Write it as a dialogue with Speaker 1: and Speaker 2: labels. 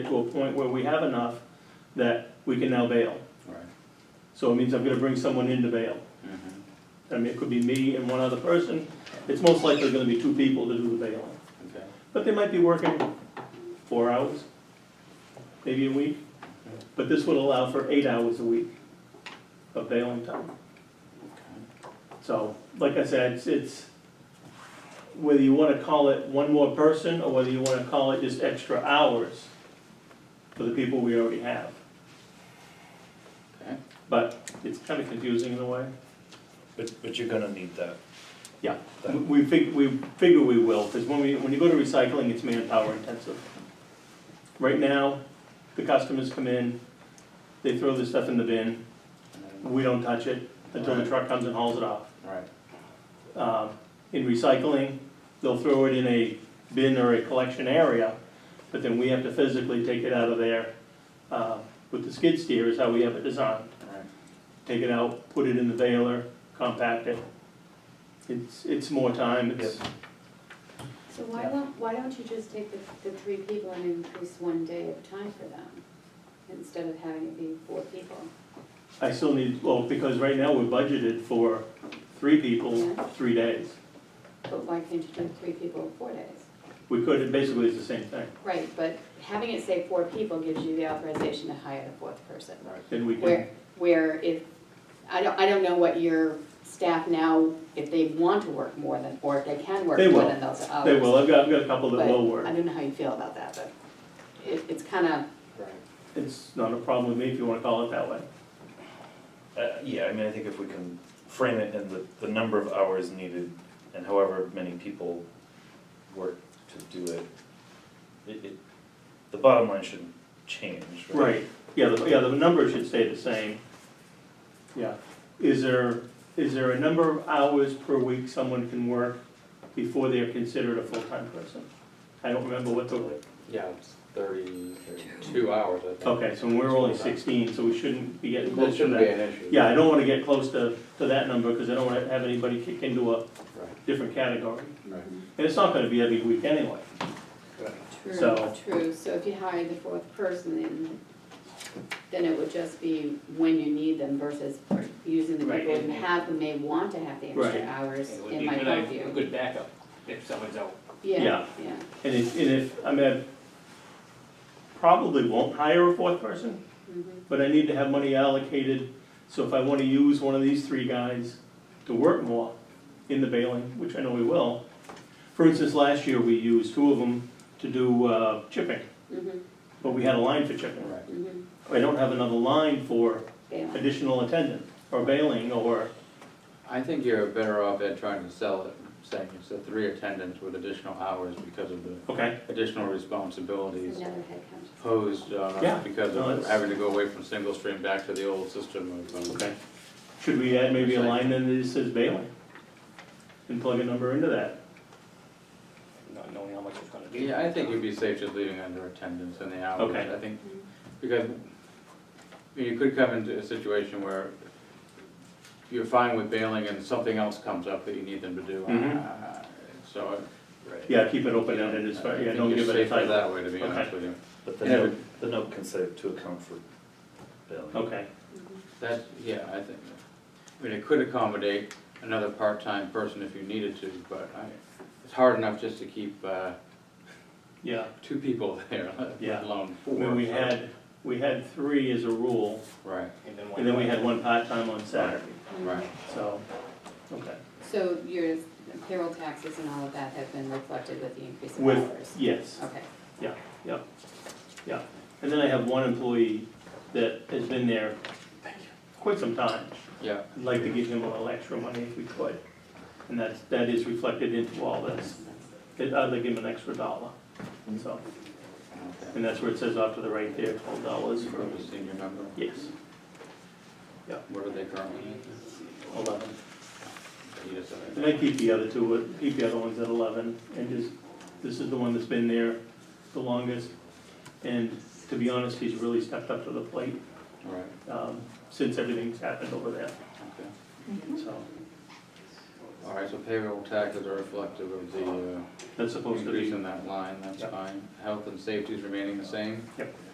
Speaker 1: to a point where we have enough that we can now bail.
Speaker 2: Right.
Speaker 1: So it means I'm gonna bring someone in to bail.
Speaker 2: Mhm.
Speaker 1: I mean, it could be me and one other person. It's most likely gonna be two people to do the bailing.
Speaker 2: Okay.
Speaker 1: But they might be working four hours, maybe a week. But this would allow for eight hours a week of bailing time.
Speaker 2: Okay.
Speaker 1: So, like I said, it's- it's, whether you wanna call it one more person, or whether you wanna call it just extra hours for the people we already have.
Speaker 2: Okay.
Speaker 1: But it's kinda confusing in a way.
Speaker 3: But, but you're gonna need that.
Speaker 1: Yeah.
Speaker 3: That-
Speaker 1: We fig, we figure we will, because when we, when you go to recycling, it's manpower intensive. Right now, the customers come in, they throw the stuff in the bin,
Speaker 2: And then-
Speaker 1: we don't touch it until the
Speaker 2: Right.
Speaker 1: truck comes and hauls it off.
Speaker 2: Right.
Speaker 1: Um, In recycling, they'll throw it in a bin or a collection area, but then we have to physically take it out of there. uh, With the skid steer is how we have it designed
Speaker 2: Right.
Speaker 1: take it out, put it in the baler, compact it. It's, it's more time, it's,
Speaker 4: So why don't, why don't you just take the, the three people and increase one day of time for them, instead of having it be four people?
Speaker 1: I still need, well, because right now we're budgeted for three people,
Speaker 4: Yeah.
Speaker 1: three days.
Speaker 4: But why can't you do three people in four days?
Speaker 1: We could, it basically is the same thing,
Speaker 4: Right, but having it say four people gives you the authorization to hire the fourth person.
Speaker 2: Right.
Speaker 1: then we can,
Speaker 4: Where, where if, I don't, I don't know what your staff now, if they want to work more than, or if they can work
Speaker 1: They
Speaker 4: more
Speaker 1: will.
Speaker 4: than those hours.
Speaker 1: they will, I've got, I've got a couple that will
Speaker 4: uh, But I
Speaker 1: work.
Speaker 4: don't know how you feel about that, but it, it's kinda,
Speaker 2: Right.
Speaker 1: It's not a problem with me if you wanna call it that way.
Speaker 3: Uh, yeah, I mean, I think if we can frame it in the, the number of hours needed and however many people work to do it, it, it, the bottom line shouldn't change, right?
Speaker 1: Right, yeah, the, yeah, the number should stay the same. Yeah, is there, is there a number of hours per week someone can work before they're considered a full-time person? I don't remember what the
Speaker 2: Yeah, it's thirty, thirty-two hours, I think.
Speaker 1: Okay, so we're only sixteen, so we shouldn't be getting
Speaker 2: That
Speaker 1: close to
Speaker 2: shouldn't be
Speaker 1: that.
Speaker 2: an issue.
Speaker 1: Yeah, I don't wanna get close to, to that number, because I don't wanna have anybody kick into a
Speaker 2: Right,
Speaker 1: different category.
Speaker 2: right.
Speaker 1: And it's not gonna be every week anyway. So-
Speaker 4: True, true, so if you hired the fourth person, then, then it would just be when you need them versus using the
Speaker 5: Right,
Speaker 4: people
Speaker 5: and-
Speaker 4: you have who may want to have the
Speaker 1: Right.
Speaker 4: extra hours
Speaker 5: It would
Speaker 4: in
Speaker 5: be
Speaker 4: my
Speaker 5: a good, idea- a
Speaker 4: purview.
Speaker 5: good backup if someone's out.
Speaker 1: Yeah.
Speaker 4: Yeah, yeah,
Speaker 1: And if, and if, I mean, I probably won't hire a fourth person,
Speaker 4: mhm,
Speaker 1: but I need to have money allocated, so if I wanna use one of these three guys to work more in the bailing, which I know we will. For instance, last year, we used two of them to do, uh, chipping,
Speaker 4: mhm,
Speaker 1: but we had a line for chipping.
Speaker 2: Right.
Speaker 4: mhm,
Speaker 1: I don't have another line for
Speaker 4: yeah.
Speaker 1: additional attendant, or bailing, or,
Speaker 2: I think you're better off at trying to sell it, saying it's the three attendants with additional hours because of the
Speaker 1: okay,
Speaker 2: additional
Speaker 4: It's
Speaker 2: responsibilities
Speaker 4: another headcount.
Speaker 2: posed
Speaker 1: Yeah,
Speaker 2: uh, because
Speaker 1: no,
Speaker 2: of
Speaker 1: it's-
Speaker 2: having to go away from single stream back to the old system of, um,
Speaker 1: okay. Should we add maybe a line then that just says bailing? And plug a number into that?
Speaker 5: Not knowing how much it's gonna be.
Speaker 2: Yeah, I think it'd be safe just leaving under attendance and the hours,
Speaker 1: Okay.
Speaker 2: I think, because you could come into a situation where you're fine with bailing and something else comes up that you need them to do.
Speaker 1: Mhm.
Speaker 2: Uh, So.
Speaker 1: Yeah, keep it open-ended, it's,
Speaker 2: I
Speaker 1: yeah,
Speaker 2: think
Speaker 1: don't
Speaker 2: you're
Speaker 1: give it a
Speaker 2: safer
Speaker 1: title.
Speaker 2: that way, to be honest
Speaker 1: Okay.
Speaker 2: with you.
Speaker 3: But the
Speaker 2: Yeah,
Speaker 3: note, the note can say to account for billing.
Speaker 1: Okay,
Speaker 2: That, yeah, I think, I mean, it could accommodate another part-time person if you needed to, but I, it's hard enough just to keep uh,
Speaker 1: yeah,
Speaker 2: two people there,
Speaker 1: Yeah.
Speaker 2: let alone
Speaker 1: I
Speaker 2: four.
Speaker 1: mean, we
Speaker 2: so-
Speaker 1: had, we had three as a rule,
Speaker 2: Right,
Speaker 1: and then we had one part-time on Saturday,
Speaker 4: Mhm.
Speaker 2: right.
Speaker 1: so, okay.
Speaker 4: So your payroll taxes and all of that have been reflected with the increase of
Speaker 1: With,
Speaker 4: hours?
Speaker 1: yes,
Speaker 4: Okay,
Speaker 1: yeah, and then I have one employee that has been there quite some time.
Speaker 2: Yeah,
Speaker 1: I'd like to give him a little extra money if we could, and that's, that is reflected into all this. I'd like give him an extra dollar, so,
Speaker 2: okay.
Speaker 1: and that's where it says off to the right there, twelve dollars for,
Speaker 2: From the senior number,
Speaker 1: yes,
Speaker 2: what are they currently at?
Speaker 1: eleven.
Speaker 2: Yes, I-
Speaker 1: And I keep the other two, uh, keep the other ones at eleven, and just, this is the one that's been there the longest. And to be honest, he's really stepped up to the plate,
Speaker 2: Right,
Speaker 1: um, since everything's happened over there,
Speaker 2: okay.
Speaker 1: so.
Speaker 2: All right, so payroll taxes are reflective of the uh,
Speaker 1: That's supposed to be.
Speaker 2: increase in that line, that's
Speaker 1: Yep.
Speaker 2: fine. Health and safety is remaining the same?